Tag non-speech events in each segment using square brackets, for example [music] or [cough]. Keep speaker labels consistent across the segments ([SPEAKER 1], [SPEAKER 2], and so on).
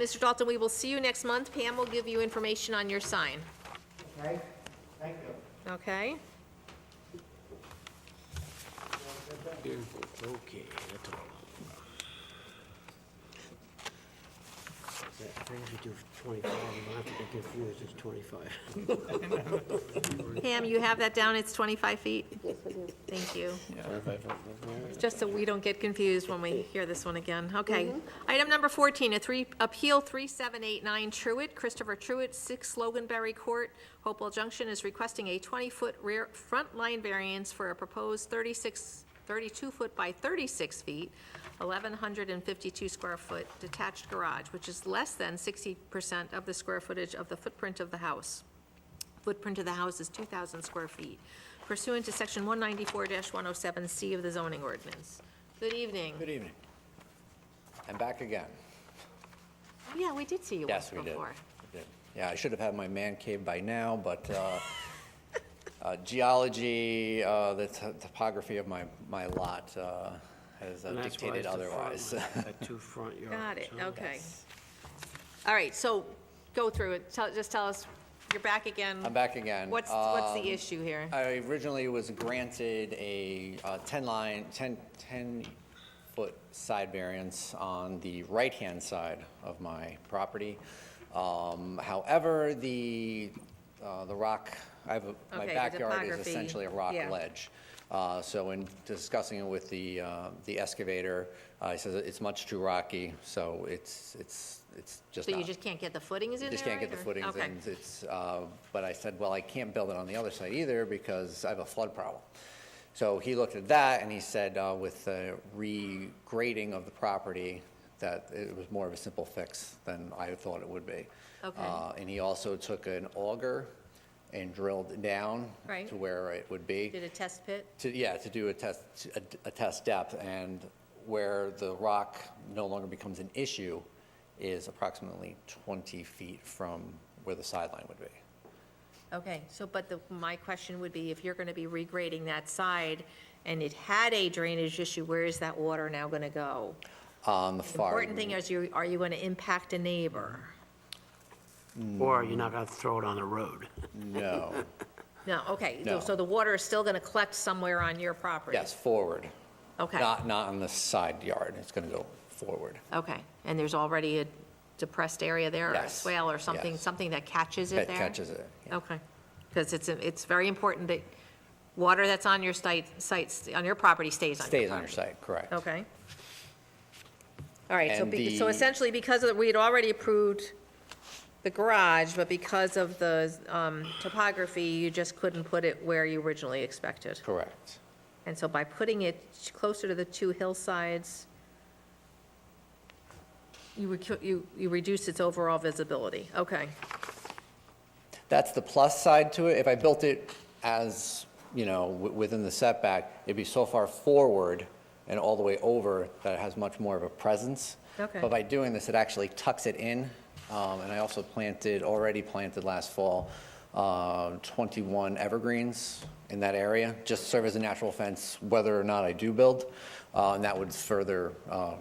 [SPEAKER 1] Mr. Dalton, we will see you next month. Pam will give you information on your sign,
[SPEAKER 2] Okay, thank you.
[SPEAKER 1] okay?
[SPEAKER 3] Okay, that's all. That brings me to twenty-five, and I have to get confused, it's twenty-five.
[SPEAKER 1] Pam, you have that down, it's 25 feet? Thank you. Just so we don't get confused when we hear this one again. Okay. Item number 14, a three, Appeal 3789 Truitt, Christopher Truitt, 6 Loganberry Court, Hopewell Junction, is requesting a 20-foot rear, front line variance for a proposed 36, 32-foot by 36 feet, 1,152 square foot detached garage, which is less than 60% of the square footage of the footprint of the house footprint of the house is 2,000 square feet pursuant to Section 194-107C of the zoning ordinance. Good evening.
[SPEAKER 4] Good evening. I'm back again.
[SPEAKER 1] Yeah, we did see you once
[SPEAKER 4] e- Yes, we
[SPEAKER 1] before.
[SPEAKER 4] did. We did. Yeah, I should have had my man cave by now,
[SPEAKER 1] [laughs]
[SPEAKER 4] but uh, uh, geology, uh, the to- topography of my, my lot uh, has uh,
[SPEAKER 3] And that's why
[SPEAKER 4] dictated
[SPEAKER 3] it's the front
[SPEAKER 4] otherwise. [laughs]
[SPEAKER 3] line, That two front yards.
[SPEAKER 1] Got it,
[SPEAKER 3] huh?
[SPEAKER 1] okay. All right, so go through it. Tell, just tell us, you're back again.
[SPEAKER 4] I'm back again.
[SPEAKER 1] What's, what's
[SPEAKER 4] Um,
[SPEAKER 1] the issue here?
[SPEAKER 4] I originally was granted a uh, 10-line, 10, 10-foot side variance on the right-hand side of my property. Um, However, the, uh, the rock, I have, a- my
[SPEAKER 1] Okay, the
[SPEAKER 4] backyard is
[SPEAKER 1] topography,
[SPEAKER 4] essentially a rock
[SPEAKER 1] yeah.
[SPEAKER 4] ledge. Uh, So in discussing it with the, uh, the excavator, uh, he says it's much too rocky, so it's, it's, it's just
[SPEAKER 1] So
[SPEAKER 4] not.
[SPEAKER 1] you just can't get the footings in there?
[SPEAKER 4] Just can't get the
[SPEAKER 1] right, or-
[SPEAKER 4] footings
[SPEAKER 1] Okay.
[SPEAKER 4] in, it's, uh, but I said, well, I can't build it on the other side either because I have a flood problem. So he looked at that and he said, uh, with the regrading of the property, that it was more of a simple fix than I thought it would be.
[SPEAKER 1] Okay.
[SPEAKER 4] Uh, And he also took an auger and drilled down
[SPEAKER 1] Right.
[SPEAKER 4] to where it would be
[SPEAKER 1] Did a test pit?
[SPEAKER 4] to, yeah, to do a test, a, a test depth, and where the rock no longer becomes an issue is approximately 20 feet from where the sideline would be.
[SPEAKER 1] Okay, so, but the, my question would be, if you're gonna be regrading that side, and it had a drainage issue, where is that water now gonna go?
[SPEAKER 4] On the
[SPEAKER 1] The
[SPEAKER 4] far.
[SPEAKER 1] Important thing is, you, are you going to impact a neighbor?
[SPEAKER 3] Or you're not gonna throw it on the road.
[SPEAKER 4] No,
[SPEAKER 1] No, okay,
[SPEAKER 4] No.
[SPEAKER 1] so the water is still going to collect somewhere on your property?
[SPEAKER 4] yes, forward.
[SPEAKER 1] Okay,
[SPEAKER 4] Not, not on the side yard, it's gonna go forward.
[SPEAKER 1] okay, and there's already a depressed area there, or a
[SPEAKER 4] Yes,
[SPEAKER 1] swale or something,
[SPEAKER 4] yes.
[SPEAKER 1] something that catches it
[SPEAKER 4] That
[SPEAKER 1] there?
[SPEAKER 4] catches it. yeah.
[SPEAKER 1] Okay, because it's, it's very important that water that's on your site, sites, on your property stays on your property.
[SPEAKER 4] Stays on your site, correct.
[SPEAKER 1] Okay. All right, so,
[SPEAKER 4] And
[SPEAKER 1] be- so
[SPEAKER 4] the-
[SPEAKER 1] essentially, because of, we had already approved the garage, but because of the um, topography, you just couldn't put it where you originally expected.
[SPEAKER 4] Correct.
[SPEAKER 1] And so by putting it closer to the two hillsides, you, recu- you, you reduce its overall visibility. Okay,
[SPEAKER 4] That's the plus side to it. If I built it as, you know, w- within the setback, it'd be so far forward and all the way over that it has much more of a presence.
[SPEAKER 1] Okay.
[SPEAKER 4] But by doing this, it actually tucks it in. Um, And I also planted, already planted last fall, uh, 21 evergreens in that area, just serve as a natural fence whether or not I do build. Uh, And that would further uh,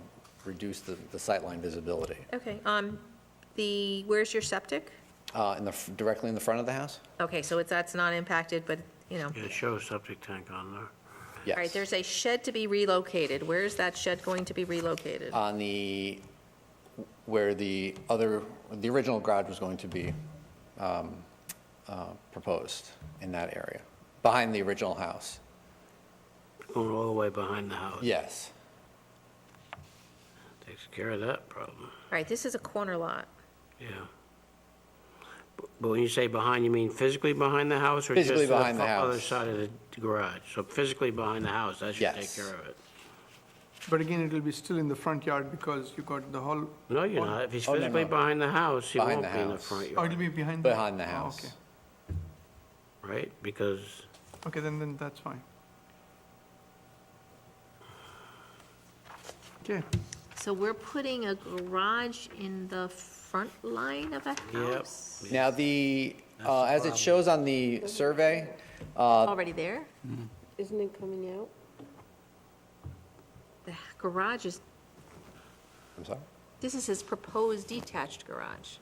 [SPEAKER 4] reduce the the sightline visibility.
[SPEAKER 1] okay. Um, the, where's your septic?
[SPEAKER 4] Uh, In the, f- directly in the front of the house?
[SPEAKER 1] Okay, so it's, that's not impacted, but, you know.
[SPEAKER 3] Yeah, show a septic tank on there.
[SPEAKER 4] Yes.
[SPEAKER 1] All right, there's a shed to be relocated. Where is that shed going to be relocated?
[SPEAKER 4] on the, where the other, the original garage was going to be um, uh, proposed in that area, behind the original house.
[SPEAKER 3] Going all the way behind the house.
[SPEAKER 4] Yes,
[SPEAKER 3] Takes care of that problem,
[SPEAKER 1] All right, this is a corner lot.
[SPEAKER 3] yeah. Bu- But when you say behind, you mean physically behind the house or just
[SPEAKER 4] Physically
[SPEAKER 3] to the
[SPEAKER 4] behind the
[SPEAKER 3] fu- other
[SPEAKER 4] house.
[SPEAKER 3] side of the garage? So physically behind the house, that should take
[SPEAKER 4] Yes.
[SPEAKER 3] care of it.
[SPEAKER 5] But again, it'll be still in the front yard because you got the whole,
[SPEAKER 3] No, you're not. If he's
[SPEAKER 4] Oh, no,
[SPEAKER 3] physically
[SPEAKER 4] no.
[SPEAKER 3] behind the house, he
[SPEAKER 4] Behind
[SPEAKER 3] won't
[SPEAKER 4] the
[SPEAKER 3] be in the
[SPEAKER 4] house.
[SPEAKER 3] front
[SPEAKER 5] or it'll
[SPEAKER 3] yard,
[SPEAKER 5] be behind?
[SPEAKER 4] behind the
[SPEAKER 5] Oh,
[SPEAKER 4] house.
[SPEAKER 5] Okay,
[SPEAKER 3] right? Because,
[SPEAKER 5] okay, then, then that's fine. Okay,
[SPEAKER 1] So we're putting a garage in the front line of a
[SPEAKER 3] yep.
[SPEAKER 1] house?
[SPEAKER 4] Now, the, uh, as it shows on the survey, uh,
[SPEAKER 1] Already there?
[SPEAKER 6] Isn't it coming out?
[SPEAKER 1] The garage is,
[SPEAKER 4] I'm sorry?
[SPEAKER 1] This is his proposed detached garage.